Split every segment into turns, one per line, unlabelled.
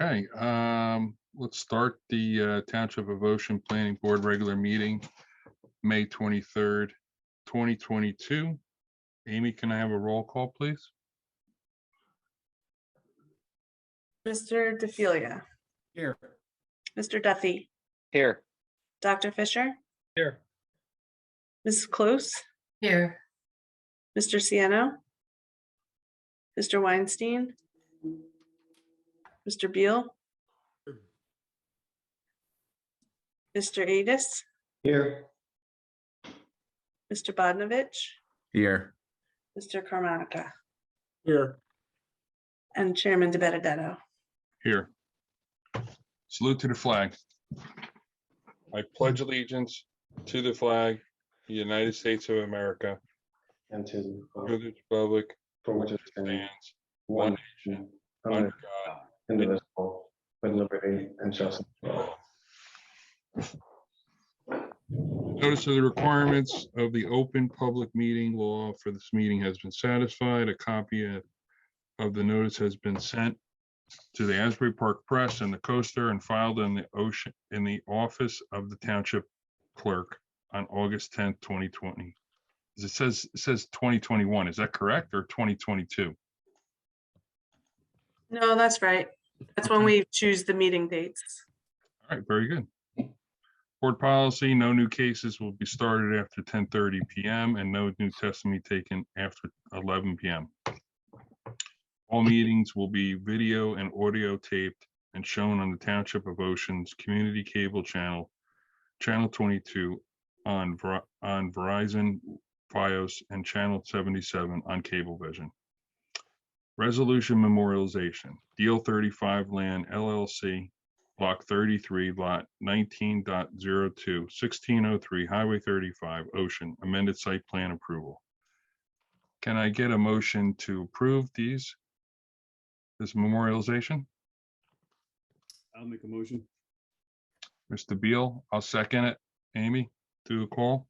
Okay, um, let's start the uh, Township of Ocean Planning Board regular meeting, May twenty-third, twenty twenty-two. Amy, can I have a roll call, please?
Mr. DeFilia,
Here.
Mr. Duffy,
Here.
Dr. Fisher,
Here.
Ms. Close,
Here,
Mr. Siano, Mr. Weinstein, Mr. Beal, Mr. Adis,
Here.
Mr. Bodnovich,
Here.
Mr. Carmonica,
Here.
and Chairman De Benedetto.
Here. Salute to the flag. I pledge allegiance to the flag, the United States of America,
and to uh, the
to
republic
the republic
for which it stands,
stands,
one
nation,
nation,
under
under
God,
God, indivisible, with liberty and justice. for all.
Notice of the requirements of the open public meeting law for this meeting has been satisfied. A copy of- of the notice has been sent to the Asbury Park Press and the Coaster and filed in the ocean, in the office of the township clerk on August tenth, twenty twenty. It says, it says twenty twenty-one. Is that correct or twenty twenty-two?
No, that's right. That's when we choose the meeting dates.
All right, very good. Board policy, no new cases will be started after ten thirty PM and no new testimony taken after eleven PM. All meetings will be video and audio taped and shown on the Township of Ocean's Community Cable Channel, Channel twenty-two on Ver- on Verizon, Fios, and Channel seventy-seven on Cablevision. Resolution memorialization, Deal thirty-five Land LLC, Block thirty-three, lot 19.02, 1603, Highway thirty-five, Ocean, amended site plan approval. Can I get a motion to approve these? This memorialization?
I'll make a motion.
Mr. Beal, I'll second it. Amy, do a call?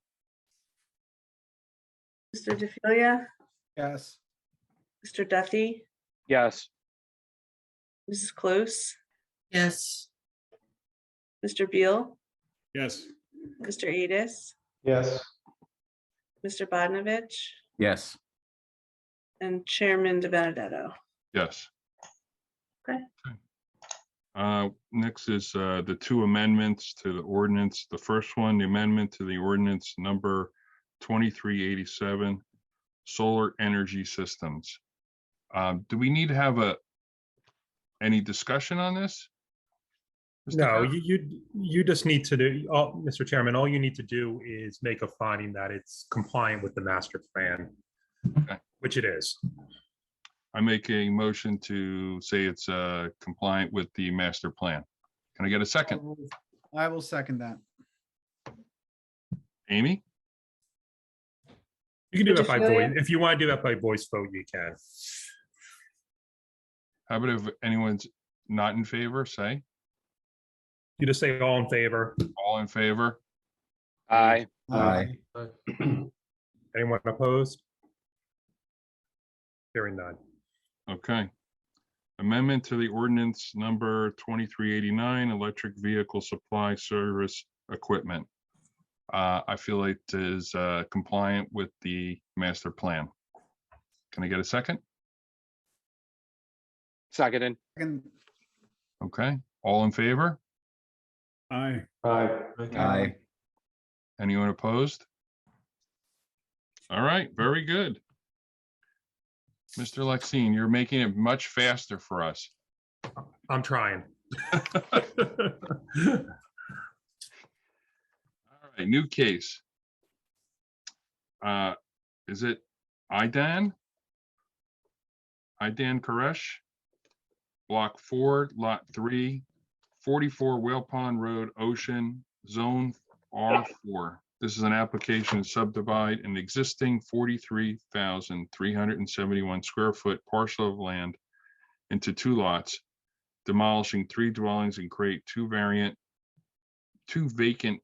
Mr. DeFilia,
Yes.
Mr. Duffy,
Yes.
Mrs. Close,
yes,
Mr. Beal,
Yes.
Mr. Adis,
Yes,
Mr. Bodnovich,
Yes.
and Chairman De Benedetto.
Yes.
Okay.
Okay. Uh, next is, uh, the two amendments to the ordinance. The first one, the amendment to the ordinance number twenty-three eighty-seven, solar energy systems. Um, do we need to have a, any discussion on this? Mr.
No,
Kern?
you, you, you just need to do, all Mr. Chairman, all you need to do is make a finding that it's compliant with the master plan, which it is.
I make a motion to say it's, uh, compliant with the master plan. Can I get a second?
Oh. I will second that.
Amy?
You can do
Mr.
that by
Celia?
voice. If you want to do that by voice vote, you can.
How about if anyone's not in favor, say,
You just say all in favor.
all in favor?
Aye.
Aye.
Anyone opposed? Hearing none.
Okay. Amendment to the ordinance number twenty-three eighty-nine, electric vehicle supply service equipment. Uh, I feel it is uh, compliant with the master plan. Can I get a second?
Seconded.
Second.
Okay, all in favor?
Aye.
aye,
Aye.
Anyone opposed? All right, very good. Mr. Lexine, you're making it much faster for us.
I'm trying.
All right, new case. Uh, is it IDAN? IDAN Koresh? Block four, lot three, forty-four Whale Pond Road, Ocean, Zone R four. This is an application to subdivide an existing forty-three thousand three hundred and seventy-one square foot parcel of land into two lots, demolishing three dwellings and create two variant, two vacant